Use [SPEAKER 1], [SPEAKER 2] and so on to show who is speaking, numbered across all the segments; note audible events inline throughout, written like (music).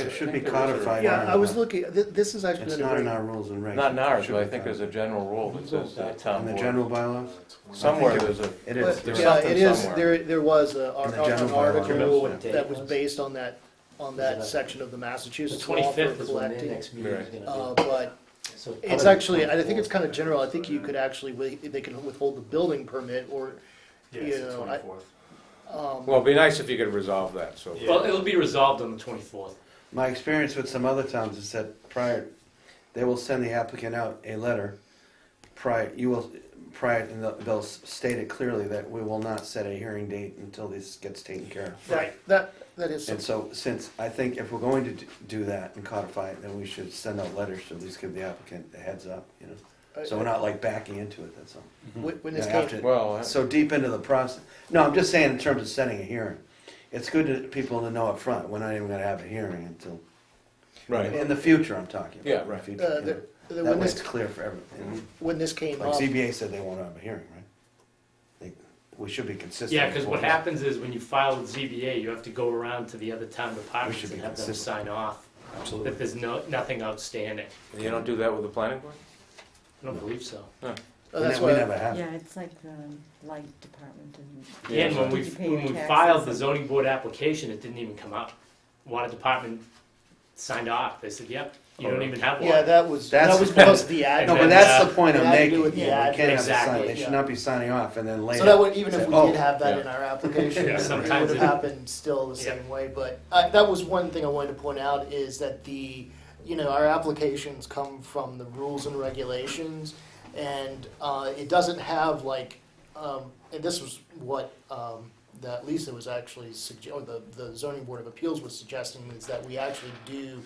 [SPEAKER 1] It should be
[SPEAKER 2] think there is a-
[SPEAKER 1] codified.
[SPEAKER 3] Yeah, I was looking, thi- this has actually
[SPEAKER 1] It's
[SPEAKER 3] been a
[SPEAKER 1] not in
[SPEAKER 3] very,
[SPEAKER 1] our rules and regs.
[SPEAKER 2] Not in ours,
[SPEAKER 1] Should
[SPEAKER 2] but I
[SPEAKER 1] be
[SPEAKER 2] think there's a
[SPEAKER 1] codified.
[SPEAKER 2] general rule that says the town
[SPEAKER 1] In the
[SPEAKER 2] board.
[SPEAKER 1] general bylaws?
[SPEAKER 2] Somewhere there's a,
[SPEAKER 1] It
[SPEAKER 3] but,
[SPEAKER 2] There's
[SPEAKER 3] yeah,
[SPEAKER 2] something
[SPEAKER 3] it is,
[SPEAKER 2] somewhere.
[SPEAKER 3] there, there was a,
[SPEAKER 1] In the
[SPEAKER 3] ar- an
[SPEAKER 1] general
[SPEAKER 3] article
[SPEAKER 1] bylaws,
[SPEAKER 4] yeah.
[SPEAKER 3] that was based on that, on that section of the
[SPEAKER 4] The
[SPEAKER 3] Massachusetts law for
[SPEAKER 4] twenty-fifth is when their
[SPEAKER 3] collecting.
[SPEAKER 4] next meeting is
[SPEAKER 3] Uh,
[SPEAKER 4] gonna
[SPEAKER 3] but
[SPEAKER 4] be. So
[SPEAKER 3] It's
[SPEAKER 4] probably
[SPEAKER 3] actually, I think it's
[SPEAKER 4] 24th.
[SPEAKER 3] kind of general, I think you could actually, wi- they can withhold the building permit or, um, you know, I-
[SPEAKER 2] well, it'd be nice if you could resolve that, so.
[SPEAKER 5] Yeah.
[SPEAKER 4] Well, it'll be resolved on the twenty-fourth.
[SPEAKER 1] My experience with some other towns is that prior, they will send the applicant out a letter prior, you will, prior, and they'll- they'll state it clearly that we will not set a hearing date until this gets taken care of.
[SPEAKER 3] that, that, that is,
[SPEAKER 1] And
[SPEAKER 3] something.
[SPEAKER 1] so, since, I think if we're going to d- do that and codify it, then we should send out letters to at least give the applicant a heads up, you know? So we're not like backing into it, that's all.
[SPEAKER 3] Wh- uh, when this
[SPEAKER 1] Yeah,
[SPEAKER 3] came,
[SPEAKER 1] after-
[SPEAKER 2] Well, I-
[SPEAKER 1] So deep into the process, no, I'm just saying in terms of setting a hearing, it's good to people to know up front. we're not even gonna have a hearing until,
[SPEAKER 2] Right,
[SPEAKER 1] in the future, I'm talking about.
[SPEAKER 2] Yeah,
[SPEAKER 1] in the
[SPEAKER 2] right. Mm-hmm.
[SPEAKER 1] future,
[SPEAKER 3] uh,
[SPEAKER 1] you
[SPEAKER 3] the- the-
[SPEAKER 1] know. That
[SPEAKER 3] when
[SPEAKER 1] way it's
[SPEAKER 3] this,
[SPEAKER 1] clear for everyone.
[SPEAKER 3] when this came
[SPEAKER 1] Like
[SPEAKER 3] up,
[SPEAKER 1] ZBA said they won't have a hearing, right? They- We should be consistent.
[SPEAKER 4] Yeah,
[SPEAKER 1] with
[SPEAKER 4] because what happens is when you file with ZBA, you have to go around to the other town
[SPEAKER 1] We should
[SPEAKER 4] departments
[SPEAKER 1] be
[SPEAKER 4] and have them
[SPEAKER 1] consistent.
[SPEAKER 4] sign off
[SPEAKER 1] Absolutely.
[SPEAKER 4] that there's no, nothing outstanding.
[SPEAKER 2] you don't do that with the planning board?
[SPEAKER 4] I don't believe so.
[SPEAKER 3] uh,
[SPEAKER 1] We
[SPEAKER 3] that's
[SPEAKER 1] ne- We
[SPEAKER 3] why,
[SPEAKER 1] never have.
[SPEAKER 6] Yeah, it's like the light department and.
[SPEAKER 2] Yeah,
[SPEAKER 4] And when
[SPEAKER 6] so
[SPEAKER 4] we,
[SPEAKER 6] you pay
[SPEAKER 4] when
[SPEAKER 6] your
[SPEAKER 4] we
[SPEAKER 6] taxes
[SPEAKER 4] filed the
[SPEAKER 6] and-
[SPEAKER 4] zoning board application, it didn't even come up. Water department signed off. They said, yep, you don't
[SPEAKER 2] Oh.
[SPEAKER 4] even have
[SPEAKER 3] yeah,
[SPEAKER 4] water.
[SPEAKER 3] that was,
[SPEAKER 1] That's- (laughs)
[SPEAKER 3] that was because the ad.
[SPEAKER 1] No, but
[SPEAKER 4] And then,
[SPEAKER 1] that's
[SPEAKER 4] uh,
[SPEAKER 1] the point
[SPEAKER 3] it
[SPEAKER 1] I'm
[SPEAKER 3] had to do
[SPEAKER 1] making, we
[SPEAKER 3] with the
[SPEAKER 1] can't
[SPEAKER 3] ad-
[SPEAKER 1] have a sign,
[SPEAKER 4] Exactly,
[SPEAKER 1] they
[SPEAKER 3] yeah.
[SPEAKER 1] should not be signing off and then later.
[SPEAKER 3] So that would, even if we
[SPEAKER 1] Oh,
[SPEAKER 3] did have that
[SPEAKER 2] yeah.
[SPEAKER 3] in our application,
[SPEAKER 4] Yeah,
[SPEAKER 3] it would
[SPEAKER 4] sometimes
[SPEAKER 3] have
[SPEAKER 4] it-
[SPEAKER 3] happened still the
[SPEAKER 4] Yeah.
[SPEAKER 3] same way, but I, that was one thing I wanted to point out is that the, you know, our applications come from the rules and regulations, and, uh, it doesn't have like, um, and this was what, um, that Lisa was actually sugge- or the, the zoning board of appeals was suggesting is that we actually do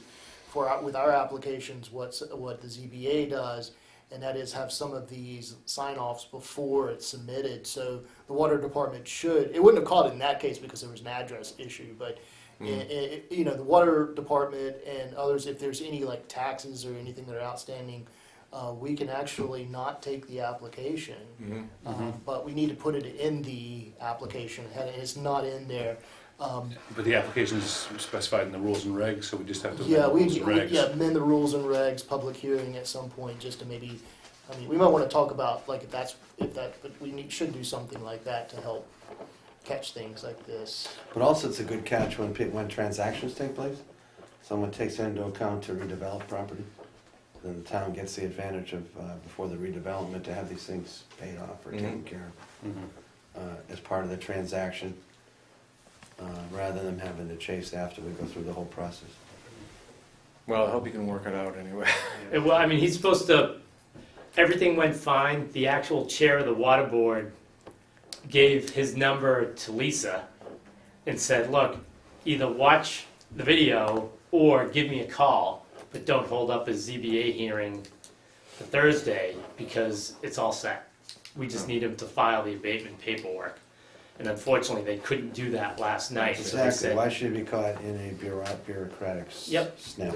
[SPEAKER 3] for, our- with our applications, what's, what the ZBA does, and that is have some of these sign-offs before it's submitted, so the water department should, it wouldn't have called it in that case because there was an address issue, but, i- i- you know, the water department and others, if there's any like taxes or anything that are outstanding, uh, we can actually not take the application,
[SPEAKER 1] Mm-hmm.
[SPEAKER 3] Uh, but we need to put it in the application, and it's not in there. Um,
[SPEAKER 7] But the application is specified in the rules and regs, so we just have to
[SPEAKER 3] yeah,
[SPEAKER 7] amend the
[SPEAKER 3] we,
[SPEAKER 7] rules and
[SPEAKER 3] we-
[SPEAKER 7] regs.
[SPEAKER 3] yeah, amend the rules and regs, public hearing at some point, just to maybe, I mean, we might wanna talk about, like, if that's, if that, but we need, should do something like that to help catch things like this.
[SPEAKER 1] But also, it's a good catch when, pe- when transactions take place. Someone takes that into account to redevelop property. Then the town gets the advantage of, uh, before the redevelopment, to have these things paid off or taken care
[SPEAKER 7] Mhm.
[SPEAKER 1] of uh, as part of the transaction, uh, rather than having to chase after we go through the whole process.
[SPEAKER 2] Well, I hope you can work it out anyway.
[SPEAKER 4] And well, I mean, he's supposed to, everything went fine. The actual chair of the water board gave his number to Lisa and said, look, either watch the video or give me a call, but don't hold up a ZBA hearing for Thursday because it's all set. We just need him to file the abatement paperwork. And unfortunately, they couldn't do that last night. so they
[SPEAKER 1] Exactly,
[SPEAKER 4] said-
[SPEAKER 1] why should it be caught in a bureau- bureaucratic s-
[SPEAKER 4] Yep.
[SPEAKER 1] snap?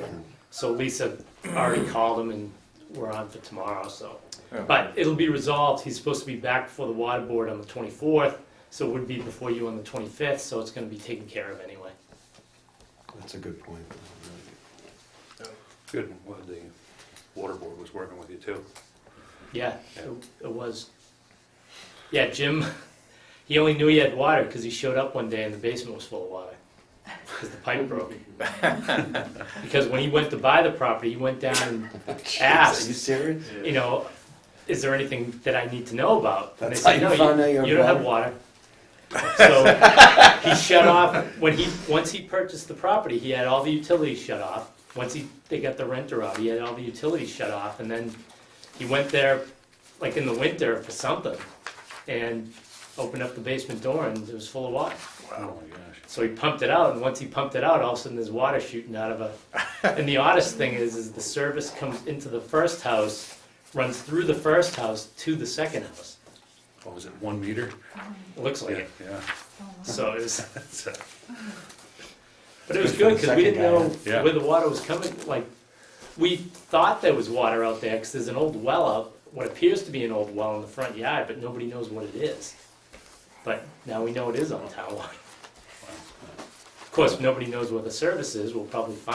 [SPEAKER 4] So Lisa already called him and we're on for tomorrow, so.
[SPEAKER 2] Yeah.
[SPEAKER 4] But it'll be resolved, he's supposed to be back before the water board on the twenty-fourth, so it would be before you on the twenty-fifth, so it's gonna be taken care of anyway.
[SPEAKER 1] That's a good point.
[SPEAKER 7] Good, I'm glad the water board was working with you too.
[SPEAKER 4] Yeah, it- it was. Yeah, Jim, he only knew he had water because he showed up one day and the basement was full of water. Because the pipe broke. Because when he went to buy the property, he went down and
[SPEAKER 1] Are
[SPEAKER 4] asked.
[SPEAKER 1] you serious?
[SPEAKER 4] you know, is there anything that I need to know about? And they
[SPEAKER 1] That's
[SPEAKER 4] said,
[SPEAKER 1] how you
[SPEAKER 4] no,
[SPEAKER 1] found out you had
[SPEAKER 4] you don't
[SPEAKER 1] (laughs)
[SPEAKER 4] have water. So he shut off, when he, once he purchased the property, he had all the utilities shut off. Once he, they got the renter out, he had all the utilities shut off, and then he went there, like in the winter for something, and opened up the basement door and it was full of water.
[SPEAKER 7] Wow. Oh my gosh.
[SPEAKER 4] So he pumped it out, and once he pumped it out, all of a sudden there's water shooting out of a. And the oddest thing is, is the service comes into the first house, runs through the first house to the second house.
[SPEAKER 7] What was Oh, it, one meter?
[SPEAKER 4] It looks like
[SPEAKER 7] Yeah,
[SPEAKER 4] it.
[SPEAKER 7] yeah. (laughs)
[SPEAKER 4] So it was,
[SPEAKER 7] That's, uh,
[SPEAKER 4] but it was
[SPEAKER 1] Good for
[SPEAKER 4] good
[SPEAKER 1] the
[SPEAKER 4] because we
[SPEAKER 1] second
[SPEAKER 4] didn't
[SPEAKER 1] guy,
[SPEAKER 4] know
[SPEAKER 7] yeah.
[SPEAKER 4] where the water was coming. Like we thought there was water out there because there's an old well out, what appears to be an old well in the front yard, but nobody knows what it is. But now we know it is on town water. Of course, nobody knows where the service is. We'll probably find.